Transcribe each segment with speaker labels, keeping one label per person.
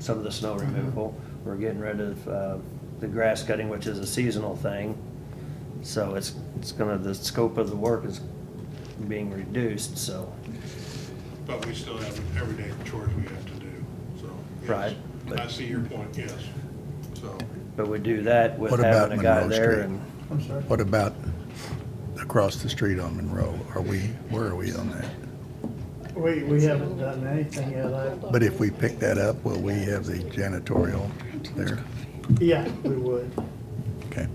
Speaker 1: some of the snow
Speaker 2: Mm-hmm.
Speaker 1: removal. We're getting rid of uh, the grass cutting, which is a seasonal thing. So it's, it's gonna, the scope of the work is being reduced, so,
Speaker 3: But we still have everyday chores we have to do, so. yes.
Speaker 1: Right, but-
Speaker 3: I see your point, yes. So,
Speaker 1: but we do that with
Speaker 2: What about
Speaker 1: having a guy
Speaker 2: Monroe
Speaker 1: there
Speaker 2: Street?
Speaker 1: and
Speaker 4: I'm sorry.
Speaker 2: What about across the street on Monroe? Are we, where are we on that?
Speaker 4: We, we haven't done anything yet. I,
Speaker 2: But if we pick that up, will we have the janitorial there?
Speaker 4: yeah, we would,
Speaker 2: Okay.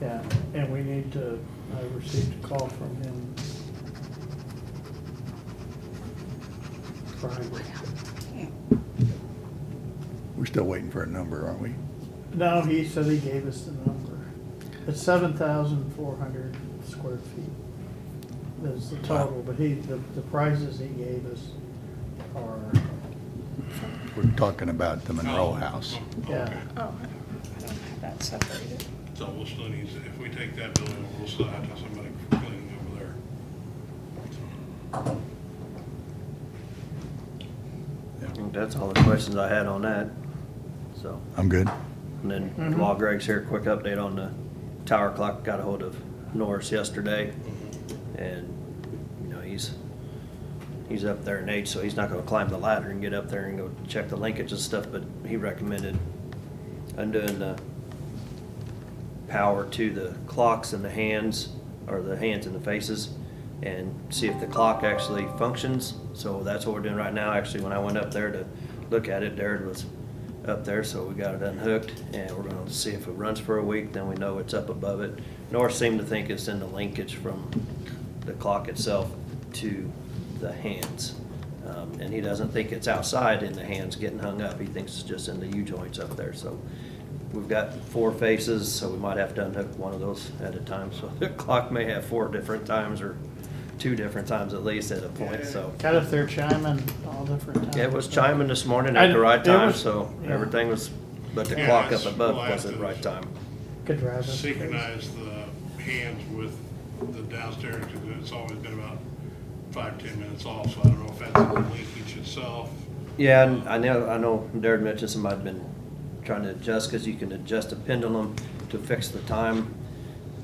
Speaker 4: yeah. And we need to, I received a call from him. Friday.
Speaker 2: We're still waiting for a number, aren't we?
Speaker 4: No, he said he gave us the number. It's seven thousand four hundred square feet is the total, but he, the, the prices he gave us are,
Speaker 2: We're talking about the Monroe
Speaker 3: Oh,
Speaker 2: house.
Speaker 3: oh,
Speaker 4: Yeah.
Speaker 3: okay.
Speaker 5: Oh, I don't have that separated.
Speaker 3: So we'll still need, to- if we take that building, over, we'll still have to have somebody cleaning over there.
Speaker 1: I think that's all the questions I had on that. So,
Speaker 2: I'm good.
Speaker 1: and then
Speaker 4: Mhm.
Speaker 1: while Greg's here, quick update on the tower clock. Got a hold of Norris yesterday and, you know, he's, he's up there in age, so he's not gonna climb the ladder and get up there and go check the linkage and stuff, but he recommended undoing the power to the clocks and the hands, or the hands and the faces, and see if the clock actually functions. So that's what we're doing right now. Actually, when I went up there to look at it, Darren was up there, so we got it unhooked, and we're gonna see if it runs for a week, then we know it's up above it. North seemed to think it's in the linkage from the clock itself to the hands. Um, And he doesn't think it's outside in the hands getting hung up. He thinks it's just in the U-joints up there, so We've got four faces, so we might have to unhook one of those at a time, so the clock may have four different times or two different times at least at a point, so.
Speaker 4: kind of they're chiming all different times.
Speaker 1: It was chiming this morning at the right
Speaker 4: And it
Speaker 1: time,
Speaker 4: was-
Speaker 1: so
Speaker 4: yeah.
Speaker 1: everything was, but the
Speaker 3: Yeah,
Speaker 1: clock up
Speaker 3: it's-
Speaker 1: above
Speaker 3: well,
Speaker 1: wasn't
Speaker 3: after-
Speaker 1: right time.
Speaker 4: Could drive us crazy.
Speaker 3: Synchronize the hands with the downstairs, because it's always been about five, ten minutes off, so I don't know if that's the linkage itself.
Speaker 1: Yeah, and I know, I know Darren mentioned somebody's been trying to adjust, because you can adjust a pendulum to fix the time.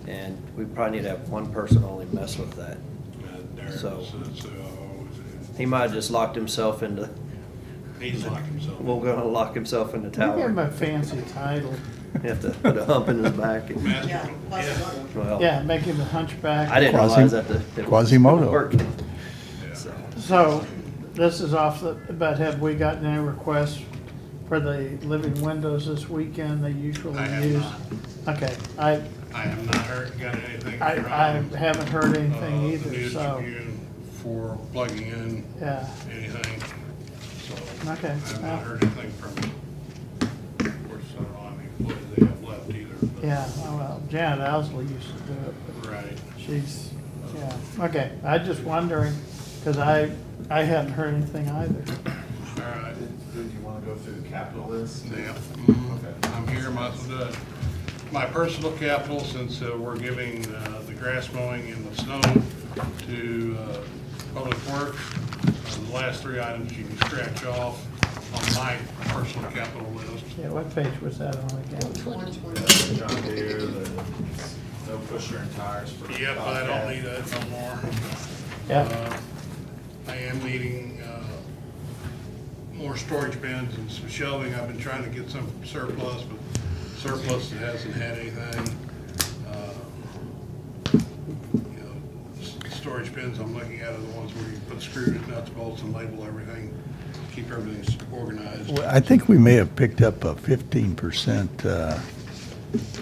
Speaker 1: And we probably need to have one person only mess with that.
Speaker 3: And there,
Speaker 1: So-
Speaker 3: so, so
Speaker 1: He might have just locked himself into,
Speaker 3: he's locked himself.
Speaker 1: well, gonna lock himself in the
Speaker 4: You give him
Speaker 1: tower.
Speaker 4: a fancy title.
Speaker 1: Have to put a hump in his back and.
Speaker 3: Master-
Speaker 5: Yeah, lots of
Speaker 3: yeah.
Speaker 5: luck.
Speaker 1: Well,
Speaker 4: Yeah, make him a hunchback.
Speaker 1: I didn't
Speaker 2: Quasi-
Speaker 1: realize that the. it
Speaker 2: Quasimodo.
Speaker 1: worked.
Speaker 3: Yeah.
Speaker 1: So,
Speaker 4: So, this is off the, but have we gotten any requests for the living windows this weekend they usually
Speaker 3: I have
Speaker 4: use? Okay, I,
Speaker 3: I have not heard, got anything.
Speaker 4: I,
Speaker 3: from,
Speaker 4: I haven't heard anything
Speaker 3: uh, the
Speaker 4: either,
Speaker 3: News
Speaker 4: so,
Speaker 3: Tribune For plugging in
Speaker 4: yeah,
Speaker 3: anything, so.
Speaker 4: Okay,
Speaker 3: I have
Speaker 4: well.
Speaker 3: not heard anything from them. Of course, I don't know how many employees they have left either. but-
Speaker 4: yeah, oh, well, Janet Owsley used to do it,
Speaker 3: Right.
Speaker 4: but she's, yeah, okay, I just wondering, cause I, I hadn't heard anything either.
Speaker 3: All right.
Speaker 6: Did did you want to go through the capital list?
Speaker 3: Yeah,
Speaker 6: Okay.
Speaker 3: I'm here, my, the, my personal capital, since uh, we're giving uh, the grass mowing and the snow to uh, Public Works, uh, the last three items you can scratch off on my personal capital list.
Speaker 4: Yeah, what page was that on again?
Speaker 6: The Uh, John Deere, the no pusher and tires for.
Speaker 3: Yep, I
Speaker 6: Bobcat.
Speaker 3: don't need that no more.
Speaker 4: Yeah,
Speaker 3: Uh, I am needing uh, more storage bins and some shelving. I've been trying to get some surplus, but surplus hasn't had anything. Uh, You know, s- Storage bins I'm looking at are the ones where you put screws, nuts, bolts, and label everything, keep everything s- organized.
Speaker 2: Well, I think we may have picked up a fifteen percent uh,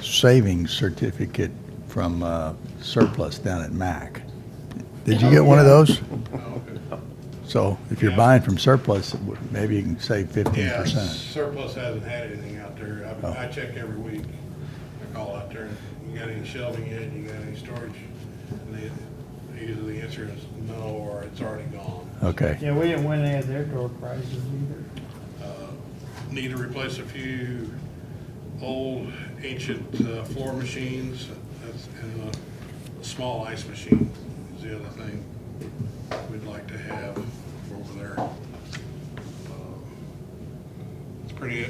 Speaker 2: savings certificate from uh, surplus down at MAC. Did you get one of those?
Speaker 3: Oh,
Speaker 2: So if you're
Speaker 3: Yeah.
Speaker 2: buying from surplus, maybe you can save fifteen
Speaker 3: Yeah,
Speaker 2: percent.
Speaker 3: surplus hasn't had anything out there. I've-
Speaker 2: Oh.
Speaker 3: I check every week. I call out there, you got any shelving yet? You got any storage? And they, either the answer is no, or it's already gone.
Speaker 2: Okay.
Speaker 4: yeah, we didn't win any of their door prizes either.
Speaker 3: Uh, Need to replace a few old ancient uh, floor machines. That's, and a small ice machine is the other thing we'd like to have over there. Um, Uh, pretty